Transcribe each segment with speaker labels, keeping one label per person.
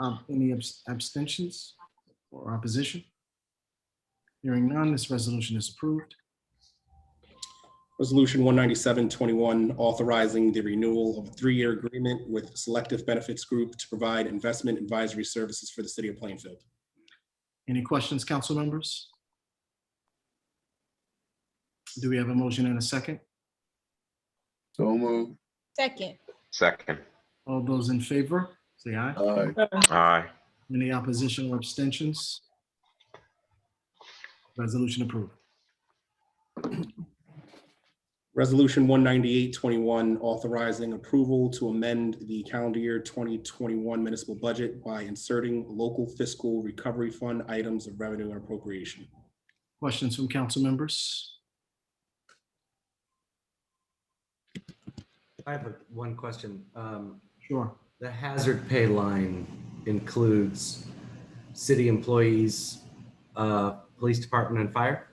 Speaker 1: Um, Any abs- abstentions or opposition? Hearing none, this resolution is approved.
Speaker 2: Resolution 197-21, authorizing the renewal of a three-year agreement with Selective Benefits Group to provide investment advisory services for the city of Plainfield.
Speaker 1: Any questions, council members? Do we have a motion and a second?
Speaker 3: So moved.
Speaker 4: Second.
Speaker 5: Second.
Speaker 1: All those in favor, say aye.
Speaker 3: Aye.
Speaker 5: Aye.
Speaker 1: Any opposition or abstentions? Resolution approved.
Speaker 2: Resolution 198-21, authorizing approval to amend the calendar year 2021 municipal budget by inserting local fiscal recovery fund items of revenue and appropriation.
Speaker 1: Questions from council members?
Speaker 6: I have a- one question. Um,
Speaker 1: Sure.
Speaker 6: The hazard pay line includes city employees, uh, police department and fire?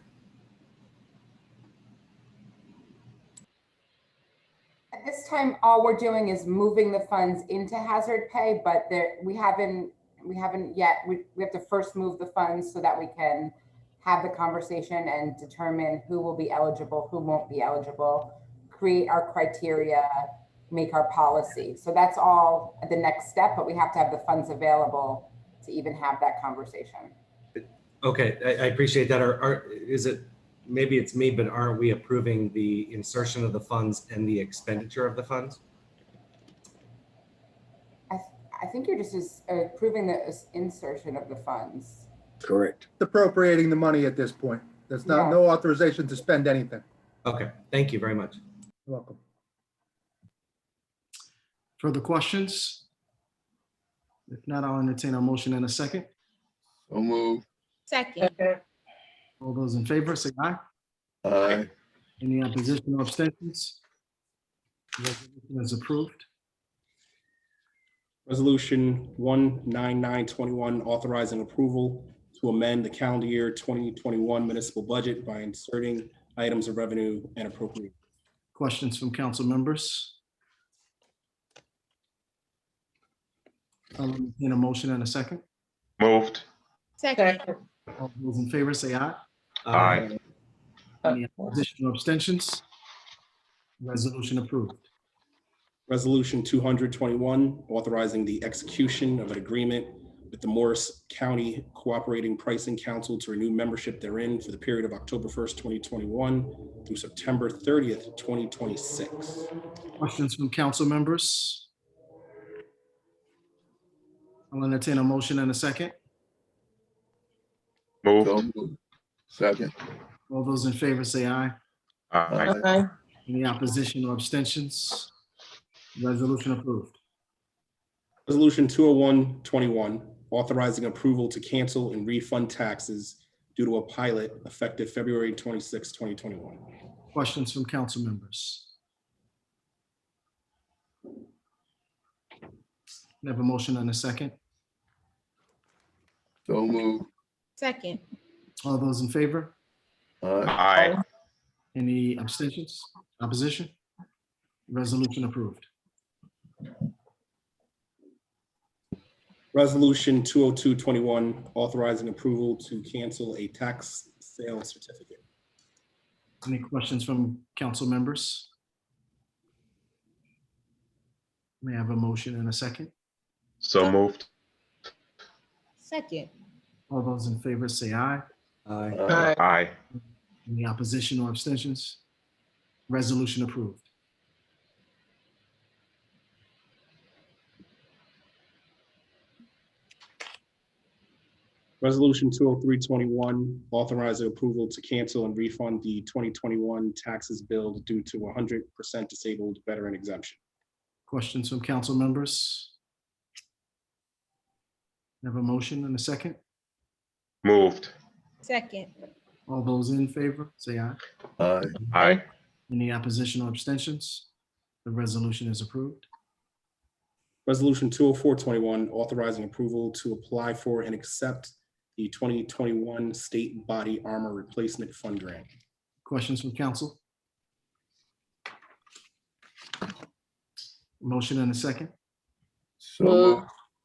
Speaker 7: At this time, all we're doing is moving the funds into hazard pay, but there, we haven't, we haven't yet, we, we have to first move the funds so that we can have the conversation and determine who will be eligible, who won't be eligible, create our criteria, make our policy. So that's all the next step, but we have to have the funds available to even have that conversation.
Speaker 6: Okay, I, I appreciate that. Are, are, is it, maybe it's me, but aren't we approving the insertion of the funds and the expenditure of the funds?
Speaker 7: I think you're just as- uh, approving the insertion of the funds.
Speaker 3: Correct.
Speaker 8: appropriating the money at this point. There's not,
Speaker 7: Yeah.
Speaker 8: no authorization to spend anything.
Speaker 6: Okay, thank you very much.
Speaker 8: You're Welcome.
Speaker 1: Further questions? If not, I'll entertain a motion and a second.
Speaker 3: So moved.
Speaker 4: Second.
Speaker 1: All those in favor, say aye.
Speaker 3: Aye.
Speaker 1: Any opposition or abstentions? Resolution is approved.
Speaker 2: Resolution 19921, authorizing approval to amend the calendar year 2021 municipal budget by inserting items of revenue and appropriate.
Speaker 1: Questions from council members? I'll entertain a motion and a second.
Speaker 5: Moved.
Speaker 4: Second.
Speaker 1: All those in favor, say aye.
Speaker 5: Aye.
Speaker 6: Um,
Speaker 1: Any opposition or abstentions? Resolution approved.
Speaker 2: Resolution 221, authorizing the execution of an agreement with the Morris County Cooperating Pricing Council to renew membership therein for the period of October 1st, 2021 through September 30th, 2026.
Speaker 1: Questions from council members? I'll entertain a motion and a second.
Speaker 3: So
Speaker 5: Moved.
Speaker 3: moved. Second.
Speaker 1: All those in favor say aye.
Speaker 5: Aye.
Speaker 1: Any opposition or abstentions? Resolution approved.
Speaker 2: Resolution 20121, authorizing approval to cancel and refund taxes due to a pilot effective February 26, 2021.
Speaker 1: Questions from council members? Can I Have a motion and a second.
Speaker 3: So moved.
Speaker 4: Second.
Speaker 1: All those in favor?
Speaker 3: Aye.
Speaker 5: Aye.
Speaker 1: Any abstentions? Opposition? Resolution approved.
Speaker 2: Resolution 20221, authorizing approval to cancel a tax sale certificate.
Speaker 1: Any questions from council members? May I have a motion and a second?
Speaker 5: So moved.
Speaker 4: Second.
Speaker 1: All those in favor say aye.
Speaker 6: Aye.
Speaker 3: Aye.
Speaker 5: Aye.
Speaker 1: Any opposition or abstentions? Resolution approved.
Speaker 2: Resolution 20321, authorizing approval to cancel and refund the 2021 taxes billed due to 100% disabled veteran exemption.
Speaker 1: Questions from council members? Have a motion and a second?
Speaker 5: Moved.
Speaker 4: Second.
Speaker 1: All those in favor, say aye.
Speaker 3: Aye.
Speaker 5: Aye.
Speaker 1: Any opposition or abstentions? The resolution is approved.
Speaker 2: Resolution 20421, authorizing approval to apply for and accept the 2021 State Body Armor Replacement Fund Grant.
Speaker 1: Questions from council? Motion and a second?
Speaker 3: So moved.